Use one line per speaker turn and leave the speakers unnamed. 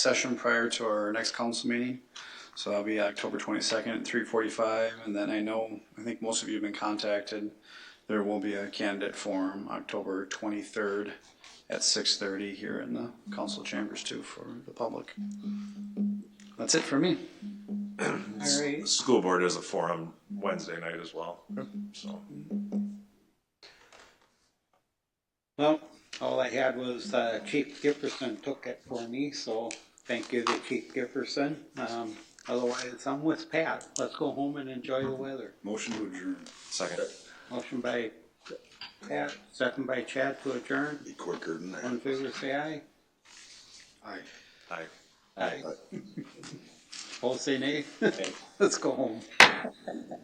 session prior to our next council meeting. So that'll be October twenty-second at three forty-five, and then I know, I think most of you have been contacted. There will be a candidate forum October twenty-third at six thirty here in the council chambers too for the public. That's it for me.
All right,
School board is a forum Wednesday night as well, so.
well, all I had was uh, Chief Gifferson took it for me, so thank you to Chief Gifferson. Um, Otherwise, I'm with Pat. Let's go home and enjoy the weather.
Motion to adjourn.
Second.
Motion by Pat, second by Chad to adjourn.
Be quicker than
All in
that.
favor, say aye.
Aye.
Aye.
Aye. All say nay. Let's go home.